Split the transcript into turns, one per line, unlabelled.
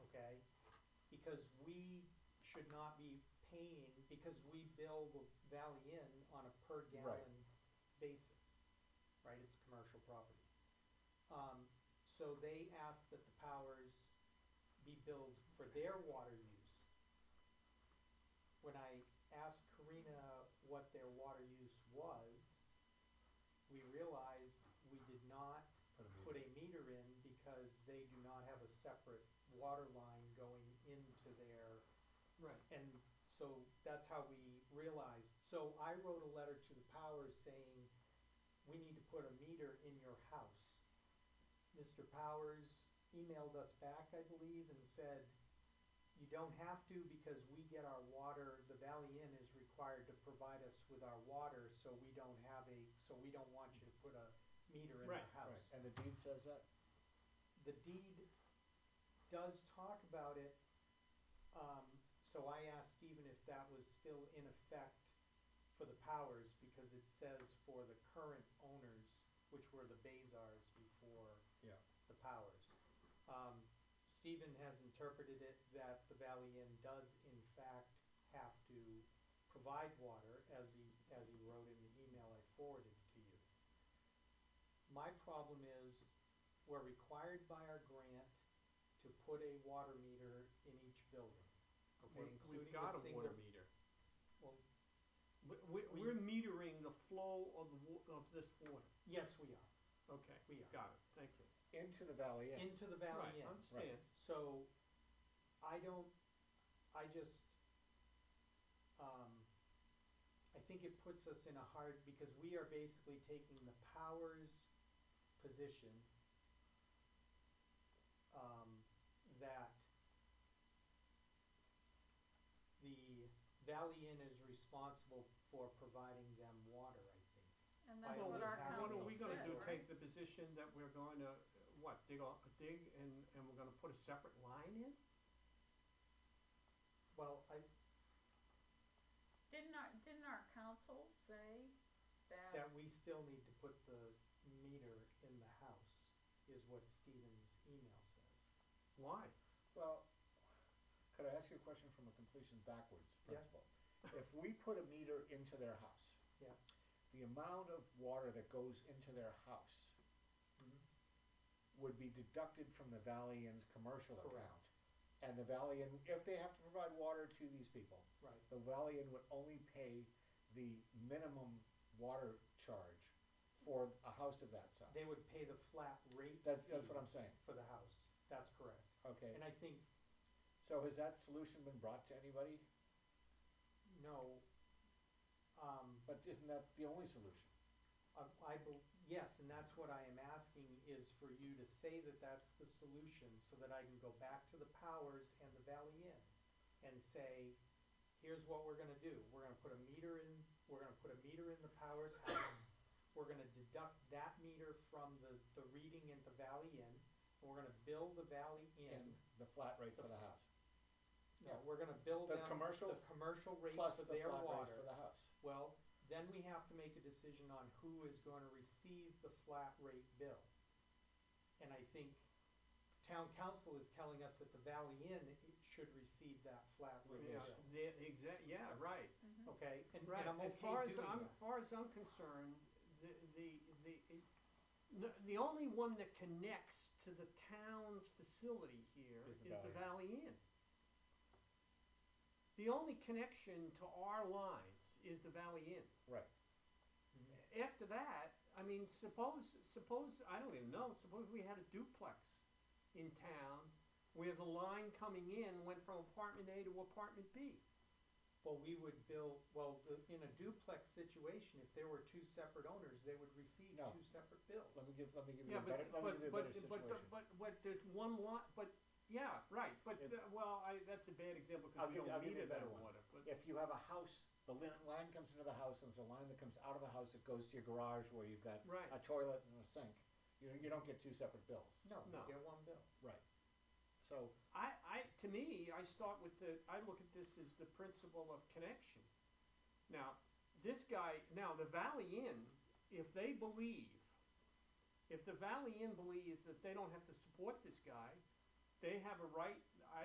because we should not be paying, because we bill the Valley Inn on a per gallon basis, right, it's commercial property. Um, so they asked that the powers be billed for their water use. When I asked Karina what their water use was, we realized we did not put a meter in because they do not have a separate water line going into their,
Right,
and so that's how we realized. So I wrote a letter to the Powers saying, we need to put a meter in your house. Mr. Powers emailed us back, I believe, and said, you don't have to because we get our water, the Valley Inn is required to provide us with our water, so we don't have a, so we don't want you to put a meter in
Right,
your house
right, and the deed says that?
the deed does talk about it. Um, so I asked Stephen if that was still in effect for the powers, because it says for the current owners, which were the Bazars before
Yeah.
the powers. Um, Stephen has interpreted it that the Valley Inn does in fact have to provide water, as he, as he wrote in the email I forwarded to you. My problem is, we're required by our grant to put a water meter in each building, okay,
We've-
including
We've got
the
a
single.
water meter.
Well-
We, we,
We-
we're metering the flow of the wa- of this water,
Yes, we are,
okay,
we are,
got it, thank you.
Into the Valley Inn.
into the Valley Inn.
Right, understand,
So, I don't, I just, um, I think it puts us in a hard, because we are basically taking the powers position um, that the Valley Inn is responsible for providing them water, I think.
And
By
that's
the
what
way,
our
how-
what are
council
we
said,
gonna do,
right?
take the position that we're gonna, uh, what, dig a, dig and, and we're gonna put a separate line in?
Well, I,
Didn't our, didn't our council say that,
that we still need to put the meter in the house, is what Stephen's email says.
Why?
Well, could I ask you a question from a completion backwards
Yeah.
principle? If we put a meter into their house.
Yeah.
The amount of water that goes into their house would be deducted from the Valley Inn's commercial
Mm-hmm. Correct.
account. And the Valley Inn, if they have to provide water to these people,
Right,
the Valley Inn would only pay the minimum water charge for a house of that size.
they would pay the flat rate
That, that's
fee
what I'm saying,
for the house, that's correct.
okay?
And I think,
So has that solution been brought to anybody?
no, um,
But isn't that the only solution?
I, I bel- yes, and that's what I am asking is for you to say that that's the solution so that I can go back to the Powers and the Valley Inn and say, here's what we're gonna do. We're gonna put a meter in, we're gonna put a meter in the Powers house. We're gonna deduct that meter from the, the reading at the Valley Inn. and We're gonna bill the Valley
And
Inn.
the flat rate for
The
the
f-
house,
No,
yeah.
we're gonna bill
The
them
commercial
the commercial rate
plus
for
the flat
their
rate
water.
for the house.
Well, then we have to make a decision on who is going to receive the flat rate bill. And I think town council is telling us that the Valley Inn i- should receive that flat rate
Yeah,
bill.
the, exact, yeah, right.
Mhm.
Okay, and,
Right,
and I'm
as far
okay
as
doing
I'm,
that.
as far as I'm concerned, the, the, the, it- the, the only one that connects to the town's facility here
Is the
is the Valley Inn. The only connection to our lines is the Valley Inn.
Right.
After that, I mean, suppose, suppose, I don't even know, suppose we had a duplex in town where the line coming in went from apartment A to apartment B.
Well, we would bill, well, the- in a duplex situation, if there were two separate owners, they would receive
No.
two separate bills.
Let me give, let me give you
Yeah,
a
but,
better, let me
but,
give you a
but,
better situation.
but, the- but, but, there's one lot, but, yeah, right, but,
It-
the- well, I, that's a bad example,
I'll
cause we
give- I'll
don't
give
need
you a
it that
better one.
water, but,
If you have a house, the lin- line comes into the house, and it's a line that comes out of the house that goes to your garage where you've got
right,
a toilet and a sink. You, you don't get two separate bills.
No, you
No.
get one bill.
So,
I, I, to me, I start with the, I look at this as the principle of connection. Now, this guy, now, the Valley Inn, if they believe, if the Valley Inn believes that they don't have to support this guy, they have a right